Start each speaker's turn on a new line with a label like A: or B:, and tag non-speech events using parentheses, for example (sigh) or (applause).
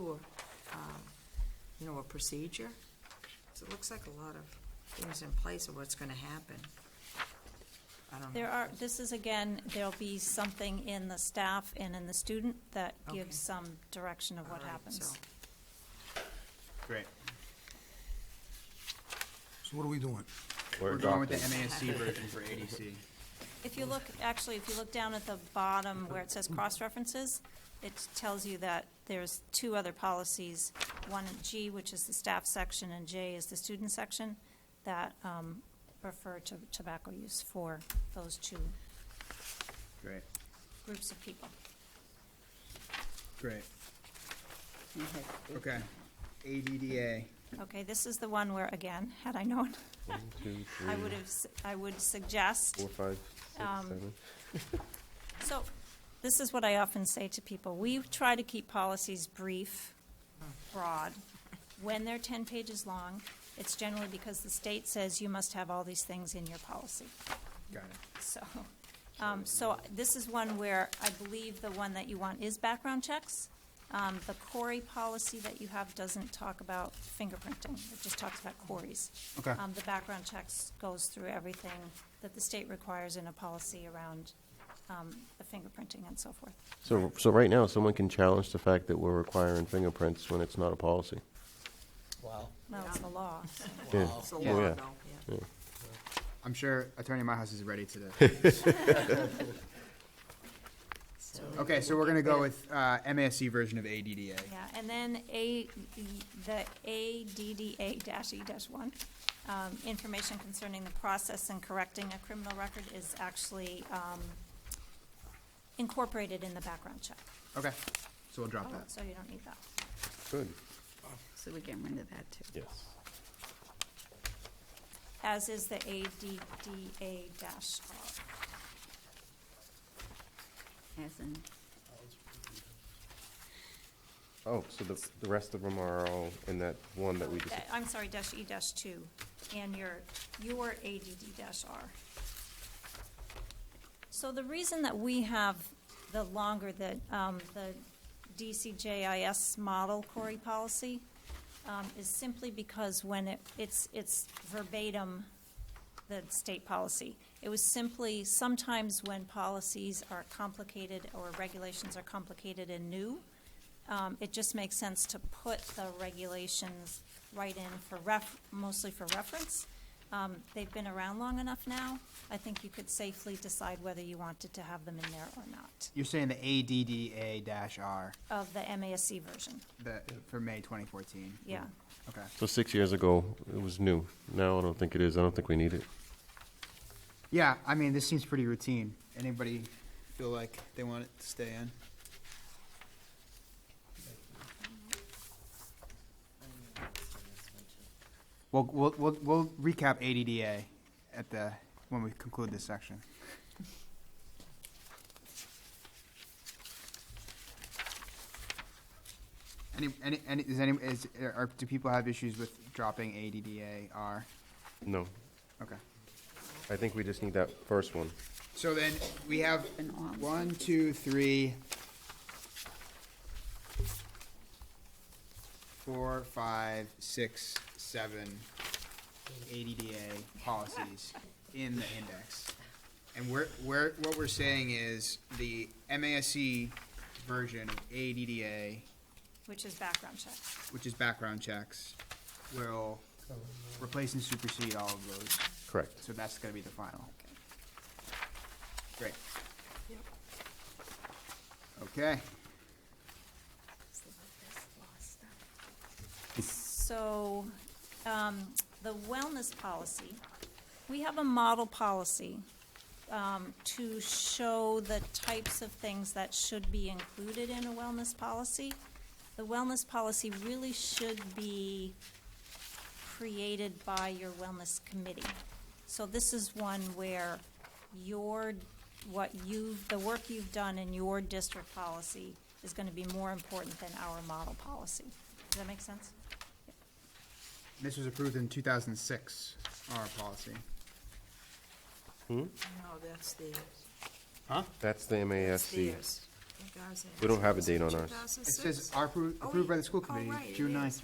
A: or um, a procedure? 'Cause it looks like a lot of things in place of what's gonna happen. I don't know.
B: There are, this is again, there'll be something in the staff and in the student that
A: Okay.
B: gives some direction of
A: All
B: what
A: right,
B: happens.
A: so-
C: Great.
D: So what are we doing?
C: We're going with the MASC version for ADC.
B: If you look, actually, if you look down at the bottom where it says
A: Mm-hmm.
B: cross-references, it tells you that there's two other policies, one in G, which is the staff section, and J is the student section, that um, refer to tobacco use for those two
C: Great,
B: groups of people.
C: great. Okay, ADDA,
B: Okay, this is the one where, again, had I known,
E: One, two,
B: I
A: Mm.
E: three,
B: would have, s- I would suggest
E: four, five, six,
B: um,
E: seven.
B: So, this is what I often say to people. We try to keep policies brief, broad. When they're 10 pages long, it's generally because the state says you must have all these things in your policy.
C: got it.
B: So, um, so this is one where I believe the one that you want is background checks. Um, the Corey policy that you have doesn't talk about fingerprinting, it just talks about Corey's.
C: Okay.
B: Um, the background checks goes through everything that the state requires in a policy around, um, the fingerprinting and so forth.
E: So, so right now, someone can challenge the fact that we're requiring fingerprints when it's not a policy.
F: Wow.
B: Now it's the law. so-
E: Yeah.
F: Wow.
A: It's a
C: Yeah. (laughs)
A: law,
E: Oh. Yeah.
A: though, yeah.
C: I'm sure Attorney Myhouse is ready (laughs) today.
A: So
C: Okay, so we're gonna go with, uh, MASC version of ADDA.
B: Yeah, and then A, E, the ADDA dash E dash one, um, information concerning the process and correcting a criminal record is actually, um, incorporated in the background check.
C: Okay, so we'll drop that.
B: So you don't need that.
E: Good.
G: So we're getting rid of that too.
E: Yes.
B: As is the ADDA dash R.
G: As in,
E: Oh, so the, the rest of them are all in that one that we just,
B: That- I'm sorry, dash E dash two, and your, your ADD dash R. So the reason that we have the longer, the, um, the DCJIS model Corey policy, um, is simply because when it, it's, it's verbatim, the state policy. It was simply, sometimes when policies are complicated or regulations are complicated and new, um, it just makes sense to put the regulations right in for ref, mostly for reference. Um, they've been around long enough now, I think you could safely decide whether you wanted to have them in there or not,
C: You're saying the ADDA dash R,
B: of the MASC version,
C: the, for May twenty fourteen?
B: yeah.
C: Okay,
E: so six years ago, it was new. Now I don't think it is. I don't think we need it.
C: yeah, I mean, this seems pretty routine. Anybody feel like they want it to stay in? We'll, we'll, we'll, we'll recap ADDA at the, when we conclude this section. Any, any, any, is any, is, are, do people have issues with dropping ADDA R?
E: No,
C: Okay.
E: I think we just need that first one.
C: So then we have
G: An arm.
C: one, two, three, four, five, six, seven ADDA policies in the index. And we're, we're, what we're saying is the MASC version of ADDA,
B: Which is background check.
C: which is background checks, will replace and supersede all of those.
E: Correct.
C: So that's gonna be the final. Great. Okay,
B: So, um, the wellness policy, we have a model policy, um, to show the types of things that should be included in a wellness policy. The wellness policy really should be created by your wellness committee. So this is one where your, what you've, the work you've done in your district policy is gonna be more important than our model policy. Does that make sense?
C: this was approved in two thousand and six, our policy.
A: No, that's the,
E: That's the
A: that's
E: MASC.
A: theirs. I think ours
E: We don't have a
A: is
E: date on ours.
A: 2006?
C: It says are appro-
A: Oh,
C: approved by
A: wait.
C: the school
A: Oh,
C: committee,
A: right, it
C: June
A: is.
C: ninth,